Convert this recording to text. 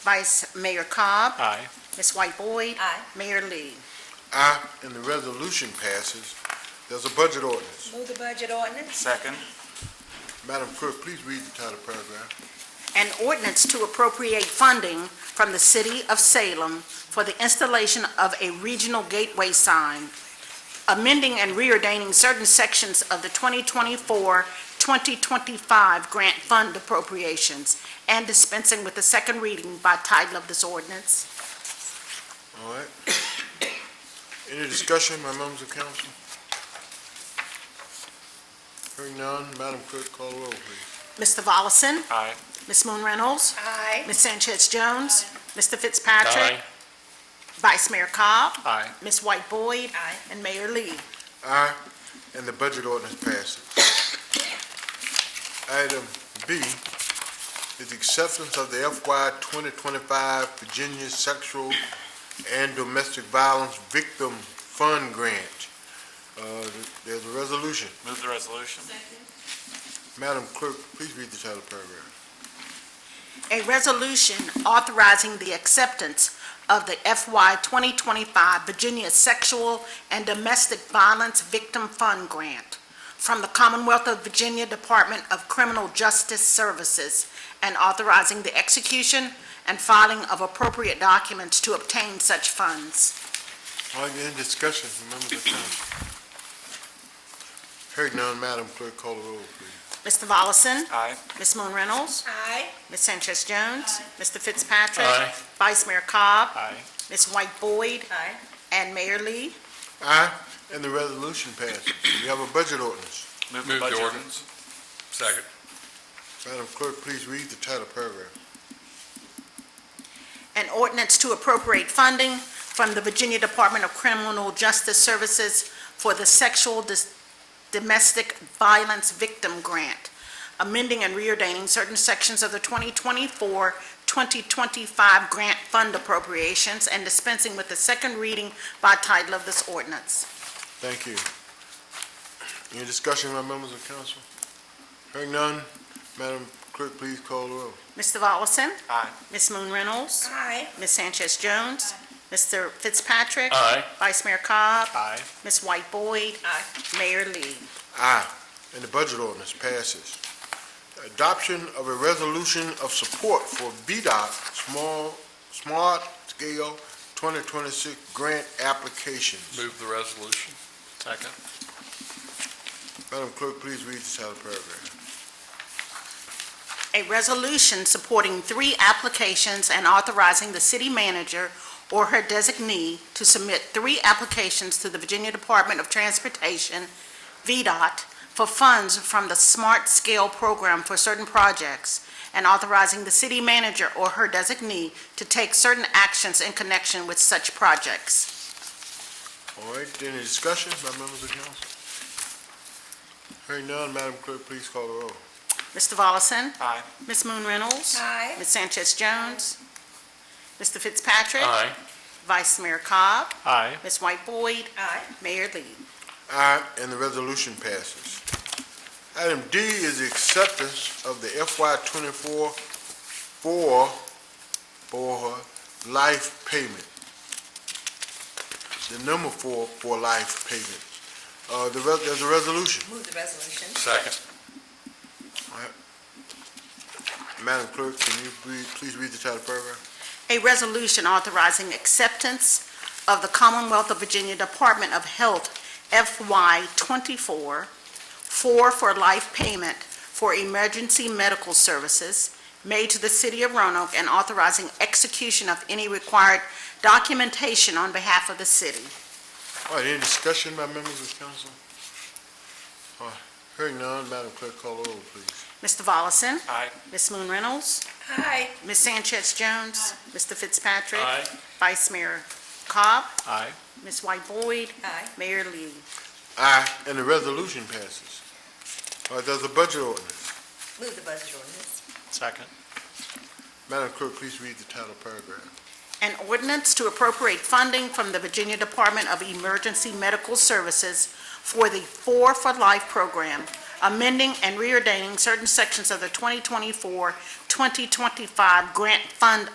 Vice Mayor Cobb, Aye. Ms. White Boyd, Aye. Mayor Lee. Aye, and the resolution passes. There's a budget ordinance. Move the budget ordinance. Second. Madam Clerk, please read the title paragraph. An ordinance to appropriate funding from the City of Salem for the installation of a regional gateway sign, amending and reordaining certain sections of the 2024-2025 grant fund appropriations, and dispensing with the second reading by title of this ordinance. All right. Any discussion, my members of council? Hearing none, Madam Clerk, call the roll, please. Mr. Volleson? Aye. Ms. Moon Reynolds? Aye. Ms. Sanchez Jones? Mr. Fitzpatrick? Vice Mayor Cobb? Aye. Ms. White Boyd? Aye. And Mayor Lee. Aye, and the budget ordinance passes. Item B is acceptance of the FY 2025 Virginia Sexual and Domestic Violence Victim Fund Grant. Uh, There's a resolution. Move the resolution. Madam Clerk, please read the title paragraph. A resolution authorizing the acceptance of the FY 2025 Virginia Sexual and Domestic Violence Victim Fund Grant from the Commonwealth of Virginia Department of Criminal Justice Services and authorizing the execution and filing of appropriate documents to obtain such funds. Are there any discussion, members of council? Hearing none, Madam Clerk, call the roll, please. Mr. Volleson? Aye. Ms. Moon Reynolds? Aye. Ms. Sanchez Jones? Mr. Fitzpatrick? Aye. Vice Mayor Cobb? Aye. Ms. White Boyd? Aye. And Mayor Lee? Aye, and the resolution passes. We have a budget ordinance. Move Move the the budget ordinance. ordinance. Second. Madam Clerk, please read the title paragraph. An ordinance to appropriate funding from the Virginia Department of Criminal Justice Services for the Sexual Dis- Domestic Violence Victim Grant, amending and reordaining certain sections of the 2024-2025 grant fund appropriations and dispensing with the second reading by title of this ordinance. Thank you. Any discussion, my members of council? Hearing none, Madam Clerk, please call the roll. Mr. Volleson? Aye. Ms. Moon Reynolds? Aye. Ms. Sanchez Jones? Mr. Fitzpatrick? Aye. Vice Mayor Cobb? Aye. Ms. White Boyd? Aye. Mayor Lee. Aye, and the budget ordinance passes. Adoption of a resolution of support for VDOT Small, Smart Scale 2026 Grant Applications. Move the resolution. Second. Madam Clerk, please read the title paragraph. A resolution supporting three applications and authorizing the city manager or her designee to submit three applications to the Virginia Department of Transportation, VDOT, for funds from the Smart Scale Program for certain projects, and authorizing the city manager or her designee to take certain actions in connection with such projects. All right, any discussion, my members of council? Hearing none, Madam Clerk, please call the roll. Mr. Volleson? Aye. Ms. Moon Reynolds? Aye. Ms. Sanchez Jones? Mr. Fitzpatrick? Aye. Vice Mayor Cobb? Aye. Ms. White Boyd? Aye. Mayor Lee. Aye, and the resolution passes. Item D is the acceptance of the FY twenty-four for, for life payment. The number four for life payment. Uh, the, res- there's a resolution. Move the resolution. Second. Madam Clerk, can you please, please read the title paragraph? A resolution authorizing acceptance of the Commonwealth of Virginia Department of Health FY twenty-four, four for life payment for emergency medical services made to the city of Roanoke and authorizing execution of any required documentation on behalf of the city. All right, any discussion by members of council? Uh, Hearing none, Madam Clerk, call the roll, please. Mr. Volleson? Aye. Ms. Moon Reynolds? Aye. Ms. Sanchez Jones? Mr. Fitzpatrick? Aye. Vice Mayor Cobb? Aye. Ms. White Boyd? Aye. Mayor Lee. Aye, and the resolution passes. All right, there's a budget ordinance. Move the budget ordinance. Second. Madam Clerk, please read the title paragraph. An ordinance to appropriate funding from the Virginia Department of Emergency Medical Services for the Four for Life program, amending and reordaining certain sections of the 2024-2025 grant fund